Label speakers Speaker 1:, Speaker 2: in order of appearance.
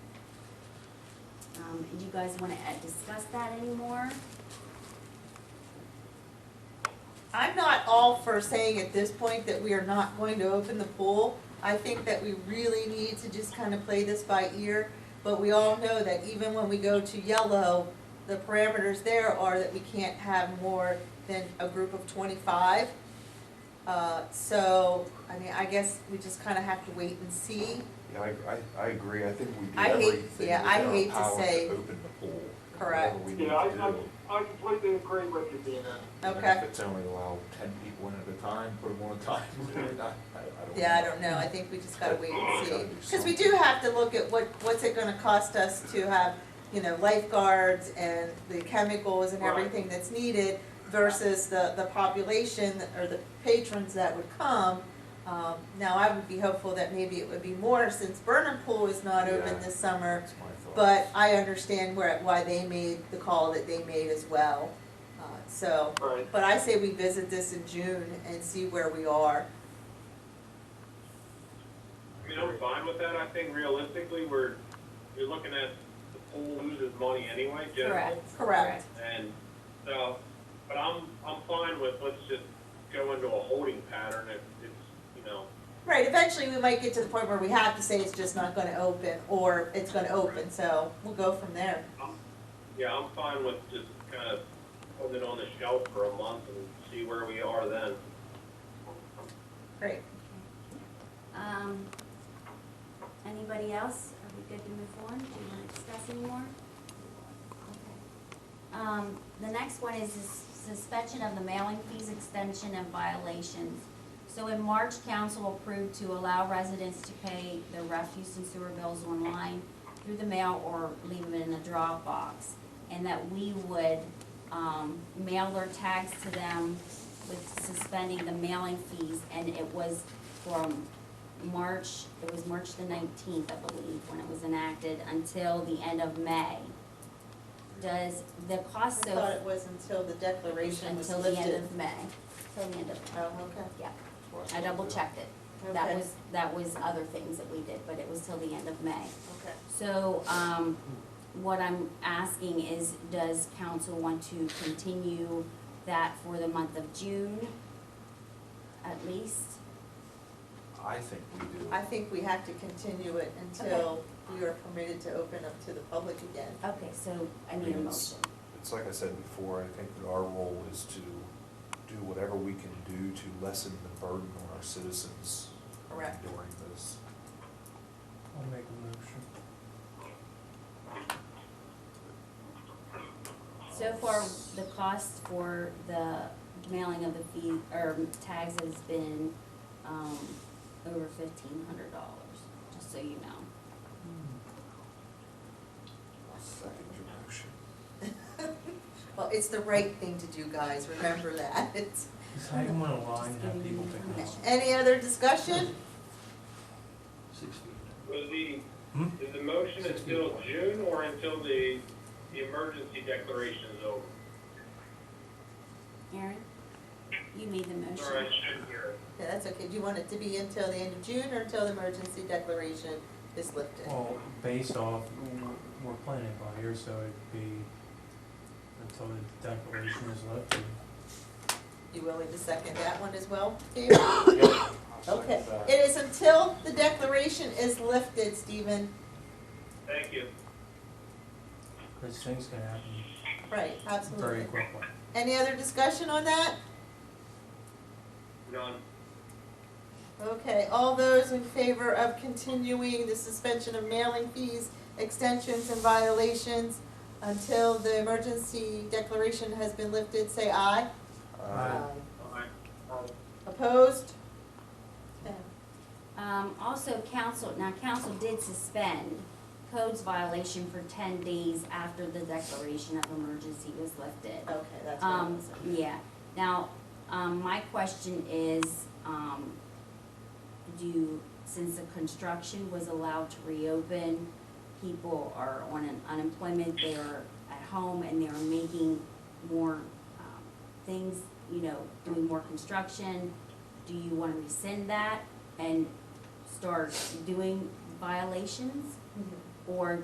Speaker 1: do Um, you guys wanna uh, discuss that anymore?
Speaker 2: I'm not all for saying at this point that we are not going to open the pool. I think that we really need to just kind of play this by ear, but we all know that even when we go to yellow, the parameters there are that we can't have more than a group of twenty-five. Uh, so, I mean, I guess we just kind of have to wait and see.
Speaker 3: Yeah, I, I, I agree, I think we do
Speaker 2: I hate-
Speaker 3: everything
Speaker 2: yeah, I hate
Speaker 3: within
Speaker 2: to
Speaker 3: our power
Speaker 2: say-
Speaker 3: to open the pool.
Speaker 2: Correct.
Speaker 3: Whatever we need
Speaker 4: Yeah, I,
Speaker 3: to do.
Speaker 4: I, I completely agree with you, Dina.
Speaker 3: And
Speaker 2: Okay.
Speaker 3: If it's only allow ten people in at a time, put them on a time limit, I, I don't know.
Speaker 2: Yeah, I don't know, I think we just gotta wait and
Speaker 3: Gotta do
Speaker 2: see, cause we do have to look at what, what's it gonna cost us to have, you know, lifeguards and the chemicals and
Speaker 4: Right.
Speaker 2: everything that's needed versus the, the population or the patrons that would come. Um, now, I would be hopeful that maybe it would be more since Burnham Pool is not open
Speaker 3: Yeah.
Speaker 2: this summer,
Speaker 3: That's my thought.
Speaker 2: but I understand where, why they made the call that they made as well, uh, so.
Speaker 4: Right.
Speaker 2: But I say we visit this in June and see where we are.
Speaker 5: I mean, I'm fine with that. I think realistically, we're, you're looking at the pool loses money anyway, generally.
Speaker 2: Correct.
Speaker 5: And so, but I'm, I'm fine with, let's just go into a holding pattern if it's, you know,
Speaker 2: Right, eventually we might get to the point where we have to say it's just not gonna open, or it's gonna open, so we'll go from there.
Speaker 5: yeah, I'm fine with just kind of putting it on the shelf for a month and see where we are then.
Speaker 2: Great.
Speaker 1: Um, anybody else? Are we good to move on? Do you wanna discuss anymore? Okay. Um, the next one is sus- suspension of the mailing fees extension and violations. So in March, council approved to allow residents to pay their refuse and sewer bills online through the mail or leave them in a drop box. And that we would, um, mail their tags to them with suspending the mailing fees. And it was from March, it was March the nineteenth, I believe, when it was enacted, until the end of May. Does the
Speaker 2: I
Speaker 1: cost
Speaker 2: thought
Speaker 1: of,
Speaker 2: it was until the declaration was
Speaker 1: until the end
Speaker 2: lifted.
Speaker 1: of May, till the end of,
Speaker 2: Oh, okay,
Speaker 1: yeah,
Speaker 3: Well,
Speaker 1: I double checked it. That
Speaker 2: Okay.
Speaker 1: was, that was other things that we did, but it was till the end of May.
Speaker 2: okay.
Speaker 1: So, um, what I'm asking is, does council want to continue that for the month of June? At least,
Speaker 3: I think we do.
Speaker 2: I think we have to continue it until we are permitted to open up to the public again.
Speaker 1: okay, so I need a
Speaker 3: Yes.
Speaker 1: motion.
Speaker 3: It's like I said before, I think that our role is to do whatever we can do to lessen the burden on our citizens
Speaker 2: Correct.
Speaker 3: during this.
Speaker 6: I'll make a motion.
Speaker 1: So far, the cost for the mailing of the fee, or tags has been, um, over fifteen hundred dollars, just so you know.
Speaker 3: I'll Second your motion.
Speaker 2: Well, it's the right thing to do, guys, remember that.
Speaker 6: Just hang them on a line and have people pick them up.
Speaker 2: Any other discussion?
Speaker 6: Six feet.
Speaker 5: Was the,
Speaker 6: Hmm?
Speaker 5: is the motion until June or until the, the emergency declaration is over?
Speaker 1: Aaron, you made the motion.
Speaker 5: Sorry, I shouldn't hear it.
Speaker 2: Yeah, that's okay, do you want it to be until the end of June or until the emergency declaration is lifted?
Speaker 6: Well, based off, w- we're planning by here, so it'd be until the declaration is lifted.
Speaker 2: You willing to second that one as well, Dave? Okay, it is until the declaration is lifted, Stephen.
Speaker 5: Thank you.
Speaker 6: Because things can happen
Speaker 2: Right,
Speaker 6: very
Speaker 2: absolutely.
Speaker 6: quickly.
Speaker 2: Any other discussion on that?
Speaker 5: None.
Speaker 2: Okay, all those in favor of continuing the suspension of mailing fees, extensions and violations until the emergency declaration has been lifted, say aye.
Speaker 3: Uh,
Speaker 5: Aye.
Speaker 2: Opposed? Okay.
Speaker 1: Um, also, council, now council did suspend codes violation for ten days after the declaration of emergency was lifted.
Speaker 2: Okay, that's what I
Speaker 1: Um,
Speaker 2: was.
Speaker 1: yeah, now, um, my question is, um, do, since the construction was allowed to reopen, people are on an unemployment, they're at home and they're making more, um, things, you know, doing more construction. Do you wanna rescind that and start doing violations?
Speaker 2: Mhm.
Speaker 1: Or